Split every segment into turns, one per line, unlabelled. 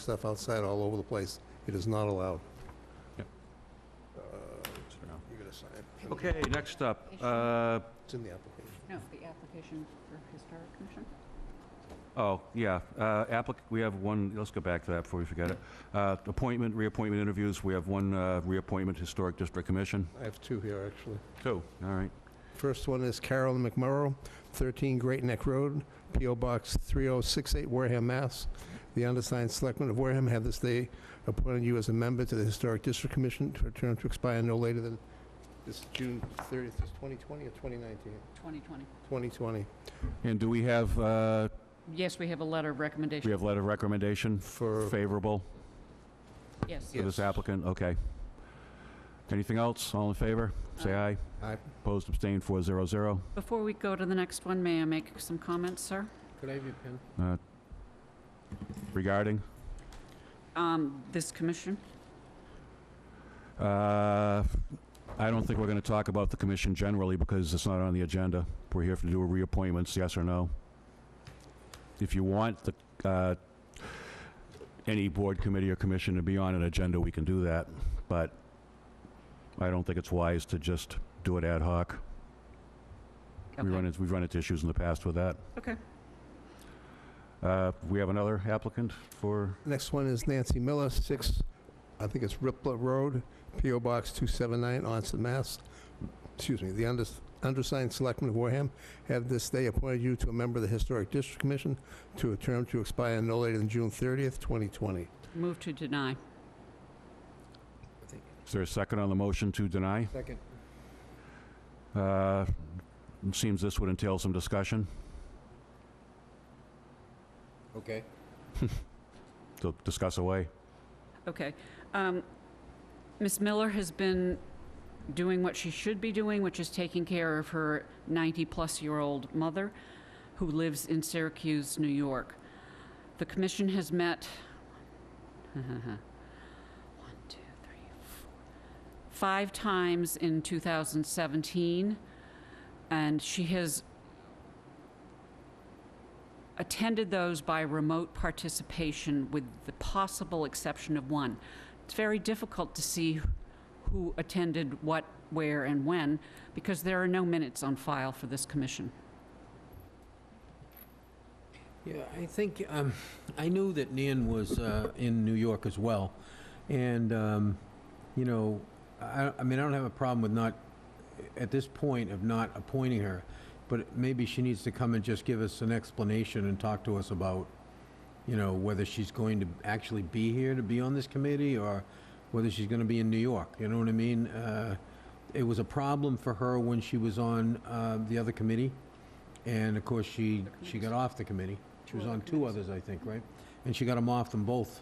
stuff outside all over the place. It is not allowed.
Yep.
Uh,
So-
You're gonna sign.
Okay, next up, uh,
It's in the application.
No, the application for Historic Commission?
oh, yeah, uh, applic, we have one, let's go back to that before we forget it. Uh, Appointment, reappointment interviews, we have one uh, reappointment, Historic District Commission.
I have two here, actually.
Two, all right.
First one is Carolyn McMorrow, 13 Great Neck Road, P.O. Box 3068, Wareham, Mass. The undersigned selectmen of Wareham have this day appointed you as a member to the Historic District Commission to a term to expire no later than this June 30th, is 2020 or 2019?
2020.
2020,
And do we have, uh,
Yes, we have a letter of
we
recommendation.
have letter of recommendation
for...
favorable
Yes.
for
Yes.
this applicant? Okay. Anything else? All in favor? Say aye.
Aye.
Opposed, abstained, 400.
Before we go to the next one, may I make some comments, sir?
Could I have your pen?
Uh, Regarding?
Um, This commission?
Uh, I don't think we're going to talk about the commission generally because it's not on the agenda. We're here to do reappointments, yes or no? If you want the, uh, any board, committee, or commission to be on an agenda, we can do that, but I don't think it's wise to just do it ad hoc. We
Okay.
run into, we've run into issues in the past with that.
Okay.
Uh, We have another applicant for,
Next one is Nancy Miller, 6, I think it's Riplet Road, P.O. Box 279, Onset, Mass. Excuse me, the unders- undersigned selectmen of Wareham have this day appointed you to a member of the Historic District Commission to a term to expire no later than June 30th, 2020.
Move to deny.
is there a second on the motion to deny?
Second.
Uh, it Seems this would entail some discussion.
Okay.
to discuss away.
Okay. Um, Ms. Miller has been doing what she should be doing, which is taking care of her 90-plus-year-old mother who lives in Syracuse, New York. The commission has met, one, two, three, four, five times in 2017, and she has attended those by remote participation with the possible exception of one. It's very difficult to see who attended what, where, and when, because there are no minutes on file for this commission.
Yeah, I think, um, I knew that Nan was, uh, in New York as well. And, um, you know, I, I mean, I don't have a problem with not, at this point, of not appointing her, but maybe she needs to come and just give us an explanation and talk to us about, you know, whether she's going to actually be here to be on this committee, or whether she's gonna be in New York, you know what I mean? Uh, it was a problem for her when she was on, uh, the other committee, and of course, she, she got off the committee. She was
Two other
on two
committees.
others, I think, right? And she got them off them both.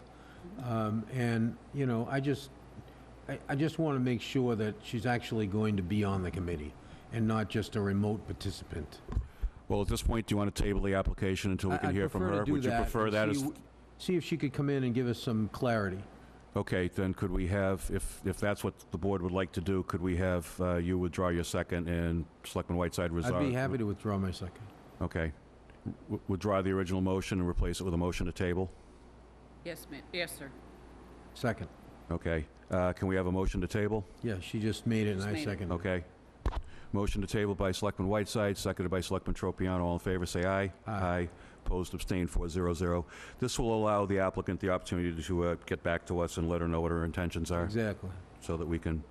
Um, And, you know, I just, I- I just want to make sure that she's actually going to be on the committee and not just a remote participant.
Well, at this point, do you want to table the application until we
I-
can
I'd
hear from
prefer to
her?
do
Would you prefer
and
that
see
as,
w- See if she could come in and give us some clarity.
okay, then could we have, if, if that's what the board would like to do, could we have uh, you withdraw your second and Selectman Whiteside resign?
I'd be happy to withdraw my second.
Okay. W- Withdraw the original motion and replace it with a motion to table?
Yes, ma'am. Yes, sir.
Second.
Okay. Uh, Can we have a motion to table?
Yeah, she just made it and
Just
I
made it.
seconded it.
Okay. Motion to table by Selectman Whiteside, seconded by Selectman Tropiano. All in favor, say aye.
Aye.
Opposed, abstained, 400. This will allow the applicant the opportunity to uh, get back to us and let her know what her intentions are,
Exactly.
so that we can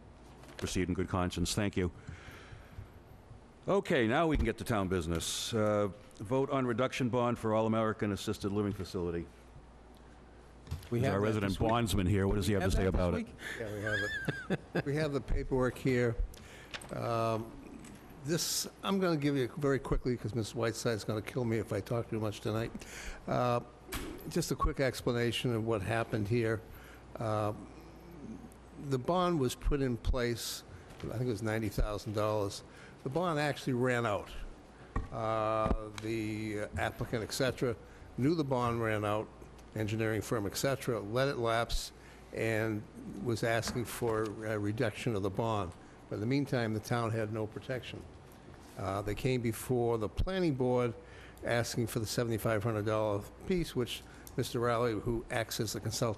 proceed in good conscience. Thank you. Okay, now we can get to town business. Uh, Vote on reduction bond for All-American Assisted Living Facility.
We
There's
have
Our
that
resident
this week.
bondsman here, what does he have to
Have
say
that this
about it?
week?
Yeah, we have it. We have the paperwork here. Um, This, I'm going to give you very quickly, because Ms. Whiteside's going to kill me if I talk too much tonight. Uh, Just a quick explanation of what happened here. Um, The bond was put in place, I think it was $90,000. The bond actually ran out. Uh, The applicant, et cetera, knew the bond ran out, engineering firm, et cetera, let it lapse, and was asking for a reduction of the bond. But in the meantime, the town had no protection. Uh, They came before the planning board asking for the $7,500 piece, which Mr. Rowley, who acts as the consultant